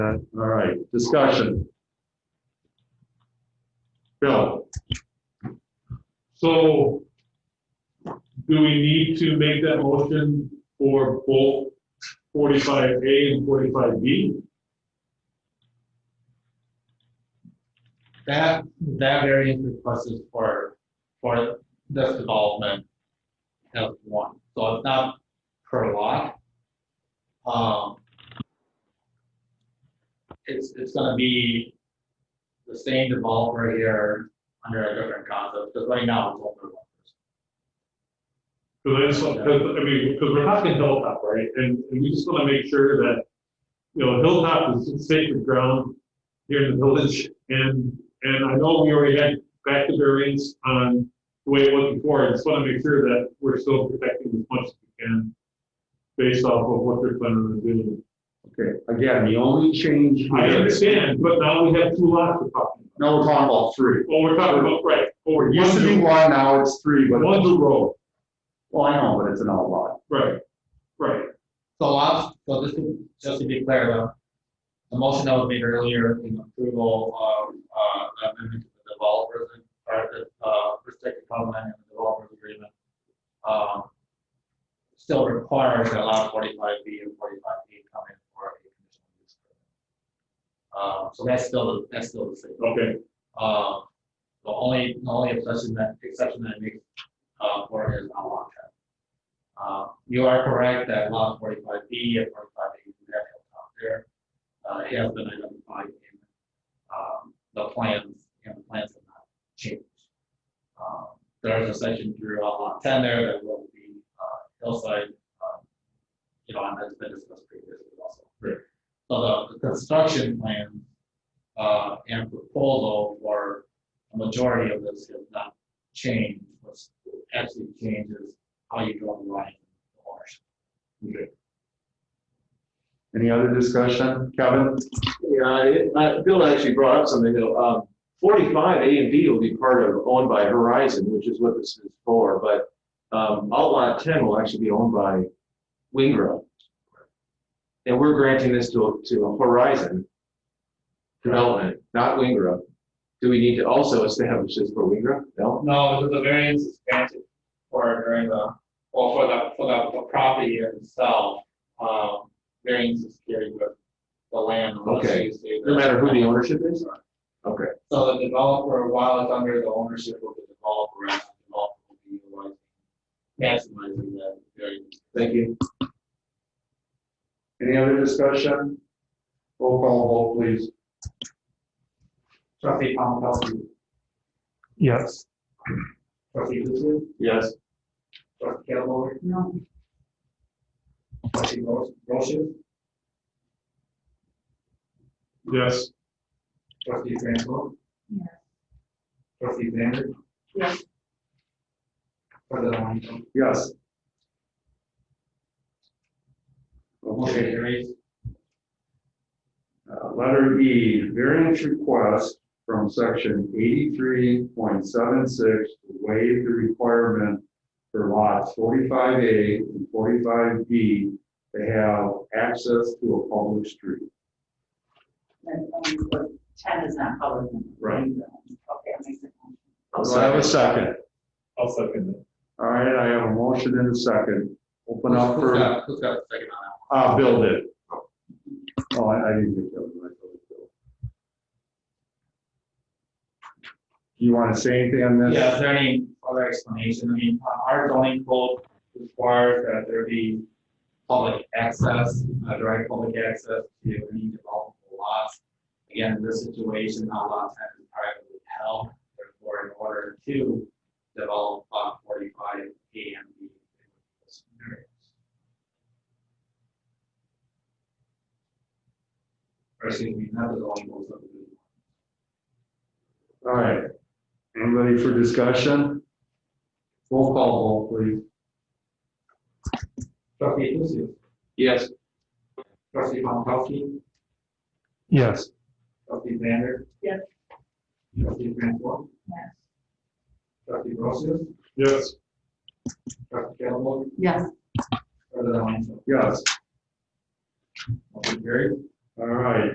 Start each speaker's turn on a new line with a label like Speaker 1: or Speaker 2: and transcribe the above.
Speaker 1: All right, discussion. Bill? So do we need to make that motion for both forty-five A and forty-five B?
Speaker 2: That, that variance request is for, for this development as one, so it's not per lot. Um, It's, it's gonna be the same developer here under a different concept, because right now it's only one person.
Speaker 1: Because that's, because, I mean, because we're talking Hilltop, right? And, and we just want to make sure that, you know, Hilltop is sacred ground here in the village. And, and I know we already had back to variance on the way it was before. I just want to make sure that we're still protecting as much as we can based off of what they're planning on doing.
Speaker 3: Okay, again, the only change.
Speaker 1: I
Speaker 3: here-
Speaker 1: understand, but now we have two lots to talk about.
Speaker 3: No, we're talking about three.
Speaker 1: Well, we're talking about, right, or
Speaker 3: It
Speaker 1: one
Speaker 3: used to be
Speaker 1: new,
Speaker 3: one, now it's three, but,
Speaker 1: one new road,
Speaker 3: well, I know, but it's an outlaw.
Speaker 1: right, right.
Speaker 2: So I'll, so this is, just to be clear, the, the motion that was made earlier in approval of, uh, the amendment to the developers, and- or the, uh, restricted covenant and the developers agreement, um, still requires that allow forty-five B and forty-five B come in for a conditional use permit. Um, so that's still, that's still the same.
Speaker 1: Okay,
Speaker 2: Um, the only, the only exception that, exception that makes, uh, for it is on lot ten. Uh, you are correct that lot forty-five B and forty-five A, you have hilltop there. Uh, it has been identified in, um, the plans, and the plans have not changed. Um, there is a section through on lot ten there that will be, uh, hillside, um, you know, and that's been discussed previously also.
Speaker 1: Right.
Speaker 2: So the, the construction plan uh, and proposal for a majority of this has not changed. What's actually changed is how you draw the line of ownership.
Speaker 3: Any other discussion, Kevin?
Speaker 4: Yeah, it- uh, Bill actually brought up something though. Um, Forty-five A and B will be part of, owned by Horizon, which is what this is for, but um, Outlot Ten will actually be owned by Wingrove. And we're granting this to, to Horizon Development, not Wingrove. Do we need to also establish this for Wingrove? No?
Speaker 2: No, the variance is granted for during the, or for the, for the, the property itself. Um, variance is carried with the land. unless
Speaker 4: Okay.
Speaker 2: you say
Speaker 4: No
Speaker 2: that-
Speaker 4: matter who the ownership is? Okay.
Speaker 2: So the developer, while it's under the ownership of the developer, the developer will be utilizing, maximizing that variance.
Speaker 3: Thank you. Any other discussion? Roll call vote, please.
Speaker 2: Trustee Pomakowski.
Speaker 1: yes.
Speaker 2: Trustee Lucio.
Speaker 4: Yes.
Speaker 2: Trustee Calhoun.
Speaker 5: No,
Speaker 2: Trustee Ro- Rochus.
Speaker 1: Yes.
Speaker 2: Trustee Francois.
Speaker 5: yes,
Speaker 2: Trustee Zander.
Speaker 5: yes,
Speaker 2: President Longo.
Speaker 3: Yes.
Speaker 2: Motion
Speaker 3: Okay,
Speaker 2: carries.
Speaker 3: uh, letter E, variance request from section eighty-three point seven six to waive the requirement for lots forty-five A and forty-five B to have access to a public street.
Speaker 5: and, um, but ten is not covered. in the
Speaker 3: Right.
Speaker 5: green zone. Okay, that makes it.
Speaker 3: Do I have a second?
Speaker 1: I'll second that.
Speaker 3: All right, I have a motion and a second. Open up
Speaker 2: Who's
Speaker 3: for,
Speaker 2: got, who's got the second on
Speaker 3: ah, Bill did. Oh, I, I didn't get that one. I thought it was Bill. You want to say anything on
Speaker 2: that?
Speaker 3: this?
Speaker 2: Yeah, is there any other explanation? I mean, uh, our zoning code requires that there be public access, uh, direct public access to any developable lots. Again, in this situation, not lots have been privately held, therefore in order to develop lot forty-five and B. it's variance. Or excuse me, not the zoning code, but the-
Speaker 3: All right. Anybody for discussion? Roll call vote, please.
Speaker 2: Trustee Lucio.
Speaker 4: Yes.
Speaker 2: Trustee Pomakowski.
Speaker 1: Yes.
Speaker 2: Trustee Zander.
Speaker 5: Yes.
Speaker 2: Trustee Francois.
Speaker 5: Yes,
Speaker 2: Trustee Rosas.
Speaker 1: Yes.
Speaker 2: Trustee Calhoun.
Speaker 5: yes.
Speaker 2: President Langill.
Speaker 3: Yes,
Speaker 2: Motion carried.
Speaker 3: all right.